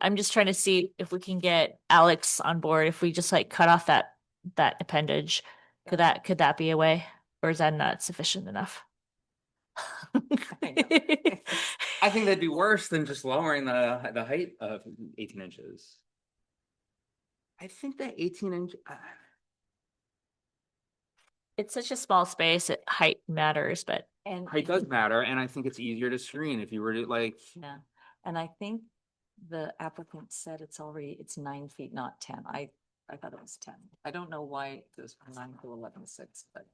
I'm just trying to see if we can get Alex on board, if we just like cut off that, that appendage. Could that, could that be a way, or is that not sufficient enough? I think that'd be worse than just lowering the, the height of eighteen inches. I think that eighteen inch, uh, It's such a small space, it- height matters, but And, height does matter, and I think it's easier to screen if you were to like, yeah, and I think the applicant said it's already, it's nine feet, not ten. I, I thought it was ten. I don't know why it goes from nine to eleven six, but,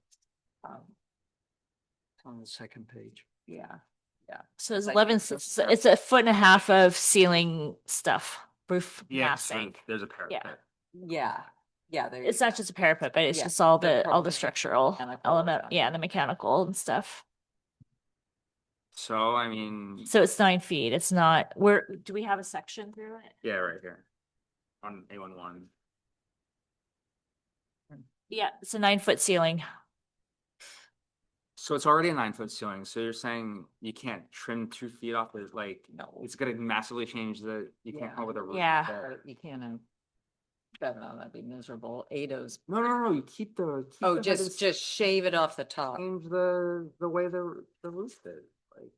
um, on the second page. yeah. so it's Like, eleven, so s- s- it's a foot and a half of ceiling stuff, roof Yeah, so massing. there's a parapet. Yeah, yeah. there It's you not go. just a parapet, but it's Yeah, just all the the, all proper the structural mechanical element, stuff. yeah, the mechanical and stuff. So I mean, So it's nine feet, it's not, where, do we have a section through it? yeah, right here. On A one one. Yeah, it's a nine foot ceiling. So it's already a nine foot ceiling, so you're saying you can't trim two feet off the, like, No, it's gonna massively change the, you can't come Yeah. with a roof. Yeah. there. but you can't, um, that, no, that'd be miserable. Ados. No, no, no, you keep the. keep Oh, the- just, just shave it off the Mm. top. Change the, the way the, the roof is, like.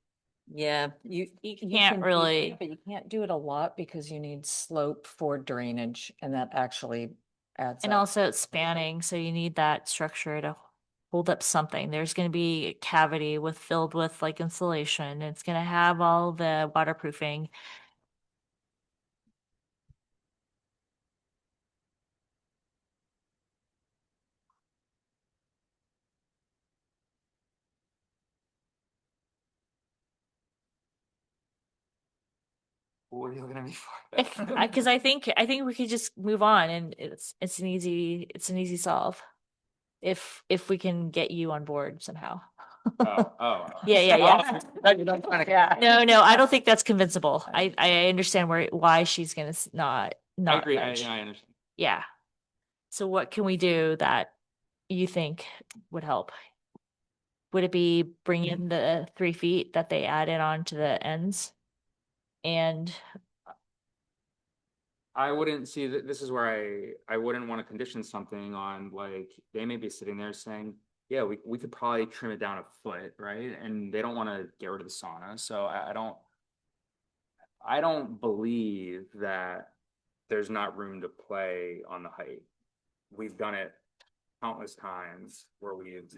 Yeah, you. You can't can do really- that, But you can't do it a lot because you need slope for drainage and that actually adds And up. also it's spanning, so you need that structure to hold up something. There's gonna be a cavity with, filled with like insulation. and It's gonna have all the waterproofing. What are you looking at me for? I- Cause I think, I think we could just move on and it's, it's an easy, it's an easy solve. If, if we can get you on board somehow. Oh, oh. Yeah, yeah, yeah. Yeah. No, no, I don't think that's convincible. I, I understand where, why she's gonna s- not, I not. agree, I, budge. I understand. Yeah. So what can we do that you think would help? Would it be bring in the three feet that they added on to the ends? And I wouldn't see that, this is where I, I wouldn't wanna condition something on like, they may be sitting there saying, yeah, we, we could probably trim it down a foot, right? And they don't wanna get rid of the sauna, so I, I don't. I don't believe that there's not room to play on the height. We've done it countless times where we've.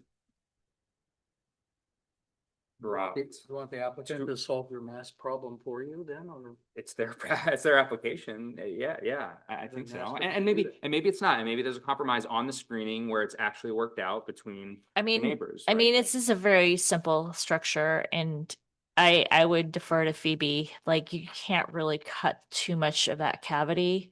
Dropped. It's you want the applicant to solve your mass problem for you then, or? it's their it's their application. uh, Yeah, yeah, I, I Then think so. that's what And, you and do maybe then. and maybe it's not. And maybe there's a compromise on the screening where it's actually worked out between I the mean, neighbors. I right? mean, this is a very simple structure and I, I would defer to Phoebe. Like you can't really cut too much of that cavity.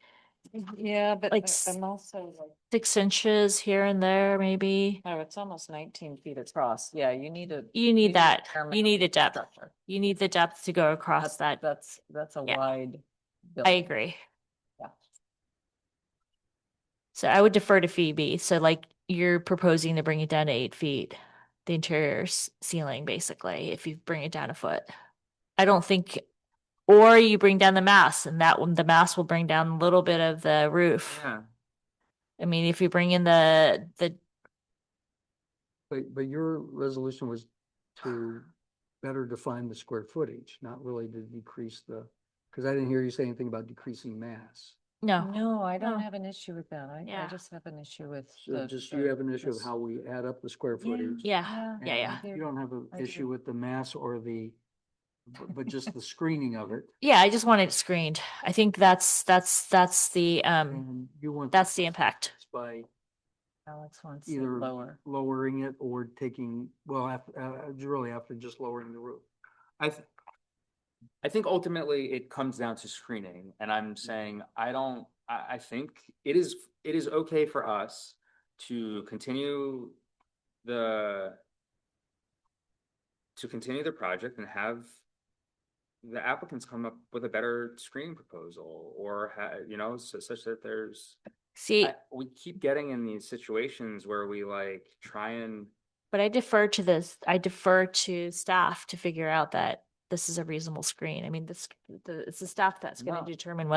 Yeah, but Like I- I'm also like, Six inches here and there, maybe. oh, it's almost nineteen feet across. Yeah, you need a. You you need a that. fair amount You need a of depth. structure. You need the depth to go across that. That's, that's a Yeah. wide. I building. agree. Yeah. So I would defer to Phoebe. So like you're proposing to bring it down to eight feet, the interior s- ceiling, basically, if you bring it down a foot. I don't think, or you bring down the mass and that one, the mass will bring down a little bit of the roof. yeah, I mean, if you bring in the, the, But, but your resolution was to better define the square footage, not really to decrease the, because I didn't hear you say anything about decreasing mass. no, No, I don't No. have an issue with that. I, I Oh. Yeah. just have an issue with. So the- just the- you have an issue of this- how we add up the square footage. yeah, yeah, and yeah. You don't have an I do. issue with the mass or the, bu- but just the screening of it. Yeah, I just want it screened. I think that's, that's, that's the, Mm. um, And you want. to that's the impact. balance By Alex wants it either- lower. lowering it or taking, well, after, uh, it's really after just lowering the roof. I th- I think ultimately it comes down to screening, and I'm saying I don't. I, I think it is it is okay for us to continue the to continue the project and have the applicants come up with a better screening proposal or ha- you know su- such that there's See, I- we keep getting in these situations where we like try and But I defer to this, I defer to staff to figure out that this is a reasonable screen. I mean, this, the, it's the staff that's gonna No. determine whether